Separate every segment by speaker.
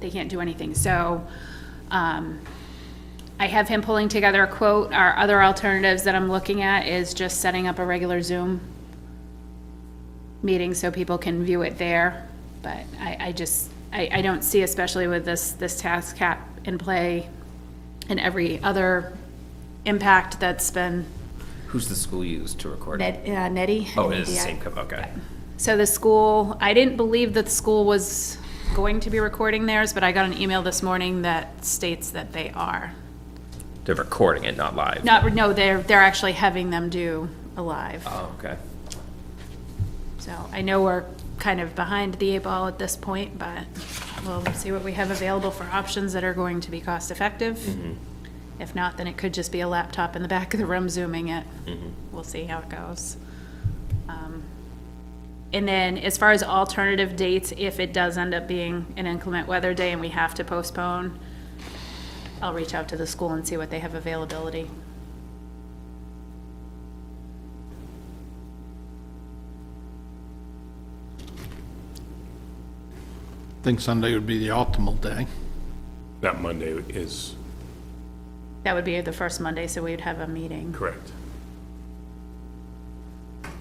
Speaker 1: they can't do anything. So, um, I have him pulling together a quote. Our other alternatives that I'm looking at is just setting up a regular Zoom meeting so people can view it there. But I, I just, I, I don't see, especially with this, this task cap in play and every other impact that's been,
Speaker 2: Who's the school used to record it?
Speaker 1: Ned, uh, Nettie.
Speaker 2: Oh, it is the
Speaker 1: Yeah.
Speaker 2: same, co- okay.
Speaker 1: So the school, I didn't believe that the school was going to be recording theirs, but I got an email this morning that states that they are.
Speaker 2: They're recording it, not live.
Speaker 1: Not, no, they're, they're actually having them do a live.
Speaker 2: Oh, okay.
Speaker 1: So I know we're kind of behind the eight ball at this point, but we'll see what we have available for options that are going to be cost-effective. If not, then it could just be a laptop in the back of the room zooming it. We'll see how it goes. Um, And then as far as alternative dates, if it does end up being an inclement weather day and we have to postpone, I'll reach out to the school and see what they have availability.
Speaker 3: Think Sunday would be the optimal day.
Speaker 4: That Monday is
Speaker 1: That would be the first Monday, so we'd have a meeting.
Speaker 4: correct.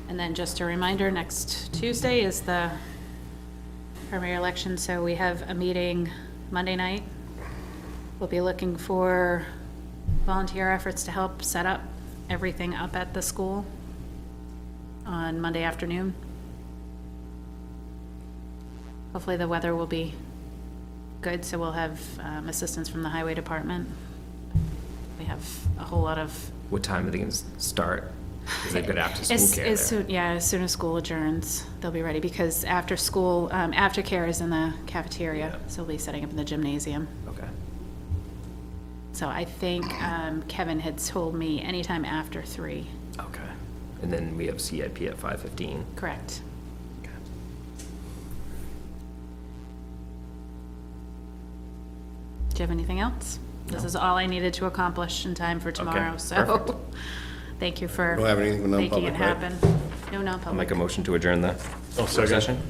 Speaker 1: And then just a reminder, next Tuesday is the primary election, so we have a meeting Monday night. We'll be looking for volunteer efforts to help set up everything up at the school on Monday afternoon. Hopefully the weather will be good, so we'll have um, assistance from the highway department. We have a whole lot of
Speaker 2: What time are they gonna s- start? Is it good after school
Speaker 1: as,
Speaker 2: care
Speaker 1: as
Speaker 2: there?
Speaker 1: soon, yeah, as soon as school adjourns, they'll be ready, because after school, um, aftercare is in the cafeteria,
Speaker 2: Yeah.
Speaker 1: so we'll be setting up in the gymnasium.
Speaker 2: Okay.
Speaker 1: So I think, um, Kevin had told me anytime after three,
Speaker 2: Okay. And then we have CIP at five fifteen.
Speaker 1: correct? Do you have anything else? This is all I needed to accomplish in time for tomorrow,
Speaker 2: perfect.
Speaker 1: so, thank you for
Speaker 5: Don't have anything for
Speaker 1: making it
Speaker 5: non-public, right?
Speaker 1: happen. No
Speaker 2: I'll make
Speaker 1: non-public.
Speaker 2: a motion to adjourn the
Speaker 4: I'll
Speaker 2: work session.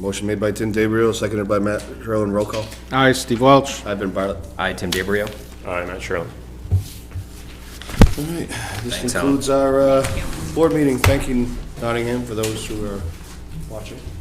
Speaker 5: Motion made by Tim DeBrio, seconded by Matt Sherlin. Roll call.
Speaker 3: Aye, Steve Welch.
Speaker 5: I've been Bartlett.
Speaker 2: I, Tim DeBrio.
Speaker 4: Aye, Matt Sherlin.
Speaker 5: All right, this
Speaker 2: Thanks, Alan.
Speaker 5: concludes our uh, board meeting. Thanking Nottingham for those who are watching.